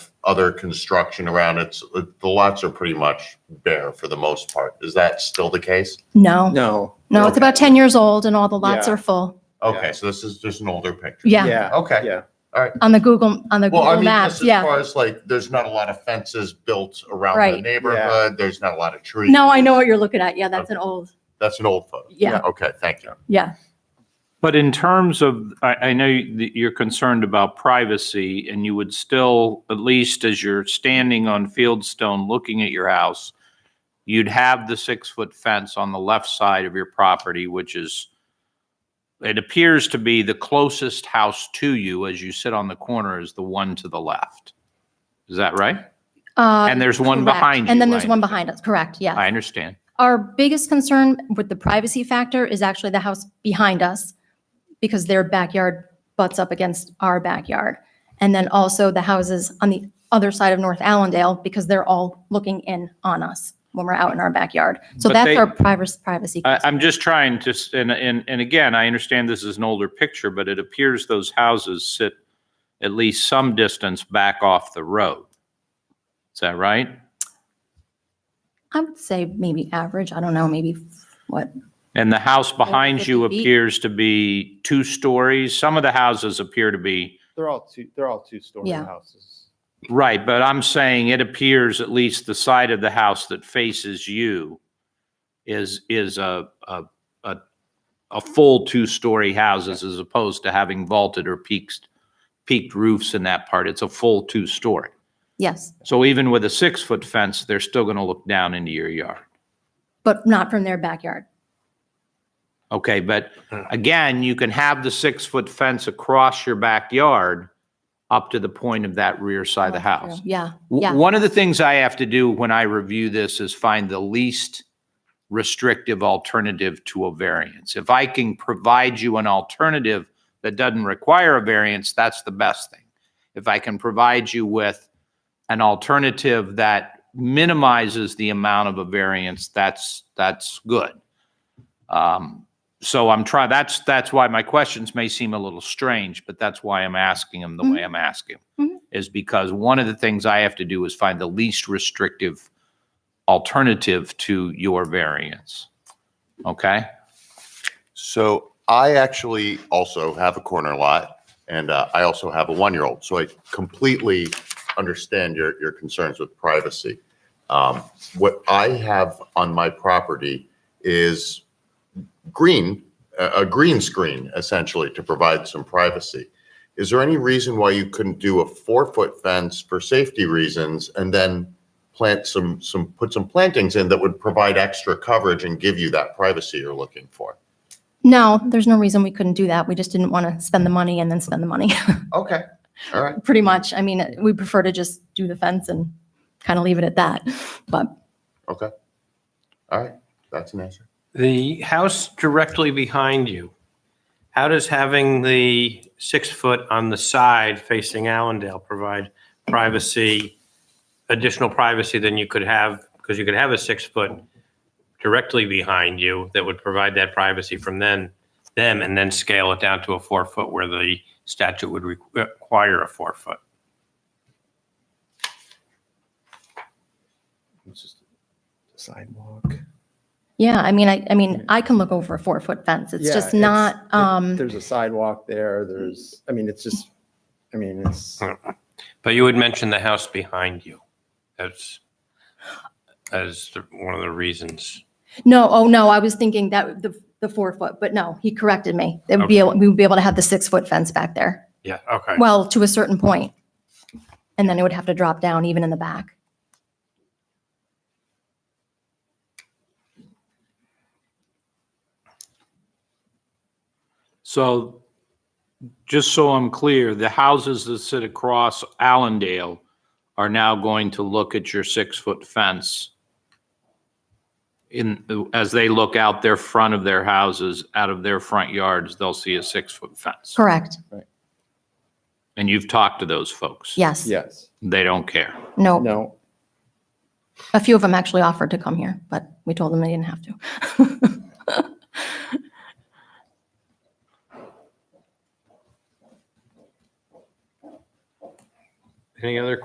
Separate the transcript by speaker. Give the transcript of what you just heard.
Speaker 1: other construction around it. So uh, The the lots are pretty much bare for the most part. Is that still the case?
Speaker 2: No,
Speaker 3: No.
Speaker 2: no, it's about 10 years old and all the lots
Speaker 3: Yeah.
Speaker 2: are full.
Speaker 1: Okay,
Speaker 3: Yeah.
Speaker 1: so this is just an older picture.
Speaker 2: Yeah,
Speaker 3: Yeah.
Speaker 1: Okay.
Speaker 3: Yeah.
Speaker 2: on the Google, on the
Speaker 1: Well, I
Speaker 2: Google
Speaker 1: mean,
Speaker 2: Maps,
Speaker 1: just as
Speaker 2: yeah.
Speaker 1: far as like, there's not a lot of fences built around the
Speaker 2: Right.
Speaker 1: neighborhood. There's not a lot of trees.
Speaker 2: No, I know what you're looking at. Yeah, that's an old,
Speaker 1: That's an old photo.
Speaker 2: yeah,
Speaker 1: Okay, thank you.
Speaker 2: yeah.
Speaker 4: But in terms of, I, I know that you're concerned about privacy and you would still, at least as you're standing on Fieldstone looking at your house, you'd have the six-foot fence on the left side of your property, which is, it appears to be the closest house to you as you sit on the corner is the one to the left. Is that right?
Speaker 2: Uh,
Speaker 4: And there's one
Speaker 2: correct.
Speaker 4: behind you.
Speaker 2: And then there's
Speaker 4: I-
Speaker 2: one behind us, correct, yeah.
Speaker 4: I understand.
Speaker 2: Our biggest concern with the privacy factor is actually the house behind us because their backyard butts up against our backyard. And then also the houses on the other side of North Allendale because they're all looking in on us when we're out in our backyard. So
Speaker 4: But
Speaker 2: that's
Speaker 4: they-
Speaker 2: our privacy, privacy.
Speaker 4: I,
Speaker 2: concern.
Speaker 4: I'm just trying to, s- and, and, and again, I understand this is an older picture, but it appears those houses sit at least some distance back off the road. Is that right?
Speaker 2: I would say maybe average, I don't know, maybe what,
Speaker 4: And the house behind you
Speaker 2: 50 feet.
Speaker 4: appears to be two stories. Some of the houses appear to be,
Speaker 3: They're all two, they're all two-story
Speaker 2: Yeah.
Speaker 3: houses.
Speaker 4: right, but I'm saying it appears at least the side of the house that faces you is, is a, a, a, a full two-story houses as opposed to having vaulted or peaked, peaked roofs in that part. It's a full two-story.
Speaker 2: yes,
Speaker 4: So even with a six-foot fence, they're still going to look down into your yard.
Speaker 2: but not from their backyard.
Speaker 4: Okay, but again, you can have the six-foot fence across your backyard up to the point of that rear side of the
Speaker 2: That's Oh, true.
Speaker 4: house.
Speaker 2: Yeah, yeah.
Speaker 4: W- One of the things I have to do when I review this is find the least restrictive alternative to a variance. If I can provide you an alternative that doesn't require a variance, that's the best thing. If I can provide you with an alternative that minimizes the amount of a variance, that's, that's good. Um, So I'm trying, that's, that's why my questions may seem a little strange, but that's why I'm asking them the way I'm asking 'em,
Speaker 2: Mhm.
Speaker 4: is because one of the things I have to do is find the least restrictive alternative to your variance. Okay?
Speaker 1: So I actually also have a corner lot and uh, I also have a one-year-old. So I completely understand your, your concerns with privacy. Um, What I have on my property is green, a, a green screen essentially to provide some privacy. Is there any reason why you couldn't do a four-foot fence for safety reasons and then plant some, some, put some plantings in that would provide extra coverage and give you that privacy you're looking for?
Speaker 2: No, there's no reason we couldn't do that. We just didn't want to spend the money and then spend the money.
Speaker 1: Okay, all right.
Speaker 2: pretty much. I mean, we prefer to just do the fence and kind of leave it at that. But
Speaker 1: Okay. All right. That's an answer.
Speaker 5: The house directly behind you, how does having the six foot on the side facing Allendale provide privacy, additional privacy than you could have, because you could have a six foot directly behind you that would provide that privacy from then, them, and then scale it down to a four foot where the statute would requ- require a four foot?
Speaker 3: It's just a Sidewalk.
Speaker 2: yeah, I mean, I, I mean, I can look over a four foot fence. It's
Speaker 3: Yeah,
Speaker 2: just not,
Speaker 3: it-
Speaker 2: um,
Speaker 3: There's a sidewalk there, there's, I mean, it's just, I mean, it's,
Speaker 5: But you had mentioned the house behind you. That's, as the- one of the reasons.
Speaker 2: no, oh, no, I was thinking that the, the four foot, but no, he corrected me. It would be, able- we would be able to have the six foot fence back there.
Speaker 5: Yeah, okay.
Speaker 2: Well, to a certain point. And then it would have to drop down even in the back.
Speaker 4: So just so I'm clear, the houses that sit across Allendale are now going to look at your six-foot fence in, as they look out their front of their houses, out of their front yards, they'll see a six-foot fence.
Speaker 2: Correct.
Speaker 4: And you've talked to those folks.
Speaker 2: Yes.
Speaker 3: yes,
Speaker 4: They don't care.
Speaker 2: No,
Speaker 3: no.
Speaker 2: a few of them actually offered to come here, but we told them they didn't have to.
Speaker 5: Any other